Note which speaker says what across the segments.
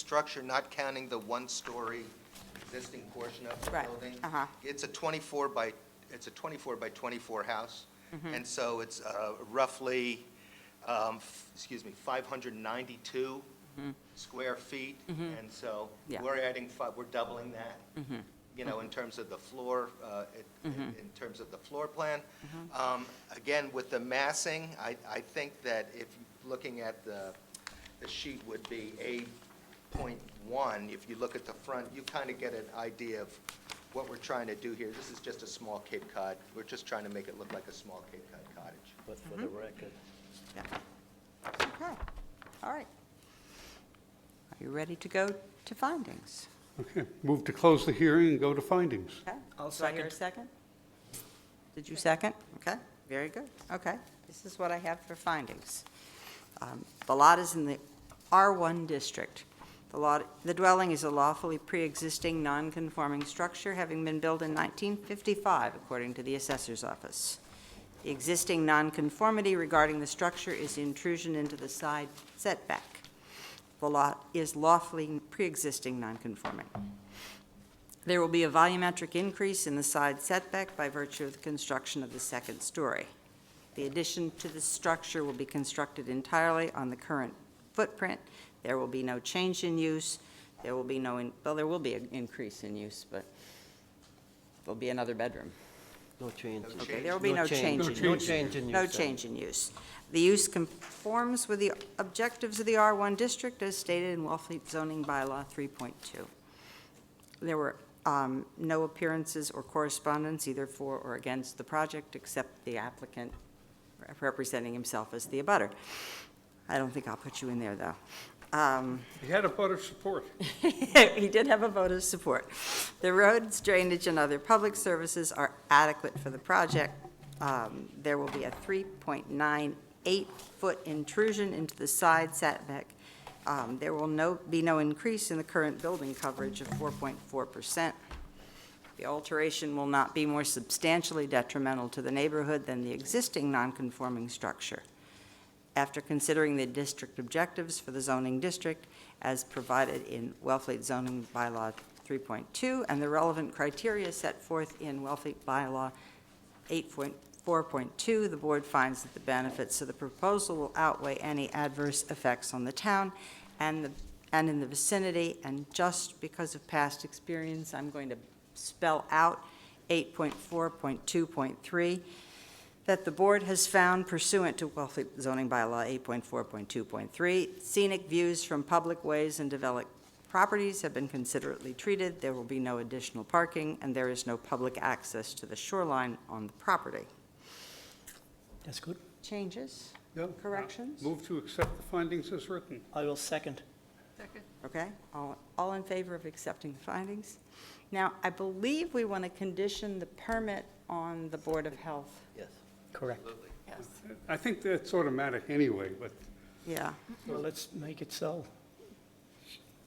Speaker 1: structure, not counting the one-story existing portion of the
Speaker 2: Right,
Speaker 1: building.
Speaker 2: uh-huh.
Speaker 1: It's a 24 by, it's a 24 by 24 house,
Speaker 2: Mm-hmm.
Speaker 1: and so it's uh, roughly, um, f- excuse me, 592 square feet, and so
Speaker 2: Mm-hmm. Yeah. Mm-hmm.
Speaker 1: we're adding five, we're doubling that, you know, in terms of the floor, uh, it- in in terms of the floor plan.
Speaker 2: Mm-hmm.
Speaker 1: Um, Again, with the massing, I, I think that if, looking at the, the sheet would be A point one, if you look at the front, you kind of get an idea of what we're trying to do here. This is just a small Cape Cod, we're just trying to make it look like a small Cape Cod cottage.
Speaker 3: But for
Speaker 2: Mm-hmm.
Speaker 3: the record,
Speaker 2: Yeah. Okay, all right. Are you ready to go to findings?
Speaker 4: Okay, move to close the hearing and go to findings.
Speaker 2: Okay.
Speaker 3: I'll
Speaker 2: Do I hear a second? Did you second? Okay, very good. Okay, this is what I have for findings. Um, The lot is in the R1 district. The lot, the dwelling is a lawfully pre-existing, non-conforming structure, having been built in 1955, according to the assessor's office. The existing nonconformity regarding the structure is intrusion into the side setback. The lot is lawfully pre-existing, non-conforming. There will be a volumetric increase in the side setback by virtue of the construction of the second story. The addition to the structure will be constructed entirely on the current footprint. There will be no change in use. There will be no, in- well, there will be an increase in use, but there'll be another bedroom.
Speaker 3: no changes.
Speaker 1: No
Speaker 2: Okay, there will be no change in use.
Speaker 3: No change in use.
Speaker 2: No change in use. The use conforms with the objectives of the R1 district as stated in Wellfleet zoning bylaw 3.2. There were um, no appearances or correspondence either for or against the project, except the applicant representing himself as the abutter. I don't think I'll put you in there, though. Um,
Speaker 4: He had a vote of support.
Speaker 2: he did have a vote of support. The roads, drainage, and other public services are adequate for the project. Um, There will be a 3.98-foot intrusion into the side setback. Um, There will no, be no increase in the current building coverage of 4.4%. The alteration will not be more substantially detrimental to the neighborhood than the existing nonconforming structure. After considering the district objectives for the zoning district as provided in Wellfleet zoning bylaw 3.2 and the relevant criteria set forth in Wellfleet bylaw 8.4.2, the board finds that the benefits of the proposal will outweigh any adverse effects on the town and the, and in the vicinity, and just because of past experience, I'm going to spell out 8.4.2.3, that the board has found pursuant to Wellfleet zoning bylaw 8.4.2.3, scenic views from public ways and developed properties have been considerately treated, there will be no additional parking, and there is no public access to the shoreline on the property.
Speaker 3: That's good.
Speaker 2: Changes?
Speaker 4: Yeah.
Speaker 2: Corrections?
Speaker 4: Move to accept the findings as written.
Speaker 3: I will second.
Speaker 2: Okay, all, all in favor of accepting the findings? Now, I believe we want to condition the permit on the Board of Health.
Speaker 3: Yes. Correct.
Speaker 2: Yes.
Speaker 4: I think that's automatic anyway, but,
Speaker 2: Yeah,
Speaker 3: Well, let's make it so.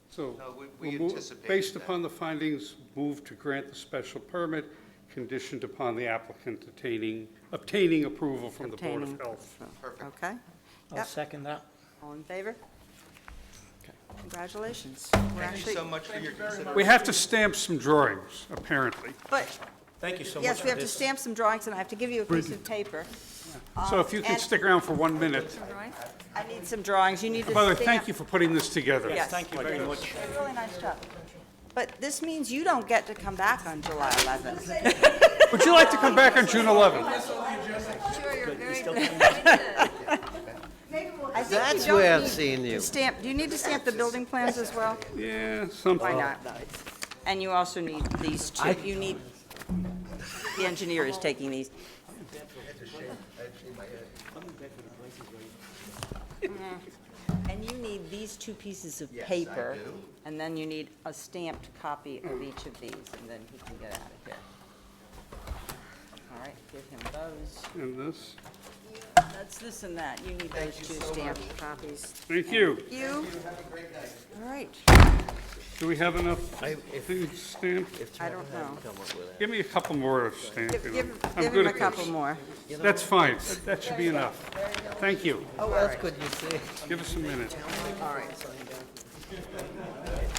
Speaker 4: so.
Speaker 1: No, we- we
Speaker 4: we'll move-
Speaker 1: anticipated
Speaker 4: Based
Speaker 1: that.
Speaker 4: upon the findings, move to grant the special permit, conditioned upon the applicant obtaining, obtaining approval from the Board
Speaker 2: obtaining.
Speaker 4: of Health.
Speaker 1: Perfect.
Speaker 2: Okay,
Speaker 3: I'll
Speaker 2: Yep.
Speaker 3: second that.
Speaker 2: all in favor? Congratulations. We're
Speaker 1: Thank you
Speaker 2: actually,
Speaker 1: so much for your consideration.
Speaker 4: We have to stamp some drawings, apparently.
Speaker 2: but,
Speaker 3: Thank you so
Speaker 2: yes, we have to stamp some drawings, and I have to give you a piece of paper.
Speaker 4: So if you
Speaker 2: Um,
Speaker 4: can
Speaker 2: and-
Speaker 4: stick around for one minute.
Speaker 2: I need some drawings, you need to
Speaker 4: By the way,
Speaker 2: stamp.
Speaker 4: thank you for putting this together.
Speaker 2: Yes.
Speaker 3: Thank you very much.
Speaker 2: Did a Really nice job. But this means you don't get to come back on July 11th.
Speaker 4: Would you like to come back on June 11th?
Speaker 5: Sure, you're very
Speaker 2: I think you
Speaker 3: That's
Speaker 2: don't
Speaker 3: where I've
Speaker 2: need
Speaker 3: seen
Speaker 2: to
Speaker 3: you.
Speaker 2: Stamp, do you need to stamp the building plans as well?
Speaker 4: Yeah, something.
Speaker 2: Why not, though? And you also need these two, you need, the engineer is taking these. Mm. And you need these two pieces of
Speaker 1: Yes, I
Speaker 2: paper.
Speaker 1: do.
Speaker 2: And then you need a stamped copy of each of these, and then he can get out of here. All right, give him those.
Speaker 4: And this,
Speaker 2: That's this and that. You need those two stamped copies.
Speaker 4: thank you.
Speaker 2: You? All right,
Speaker 4: Do we have enough things stamped?
Speaker 2: I don't know.
Speaker 4: Give me a couple more of
Speaker 2: Give,
Speaker 4: stamping.
Speaker 2: give
Speaker 4: I'm
Speaker 2: give him
Speaker 4: good
Speaker 2: a
Speaker 4: at
Speaker 2: couple
Speaker 4: this.
Speaker 2: more.
Speaker 4: That's fine. That should be enough. Thank you.
Speaker 3: How else could you say?
Speaker 4: Give us a minute.
Speaker 2: All right.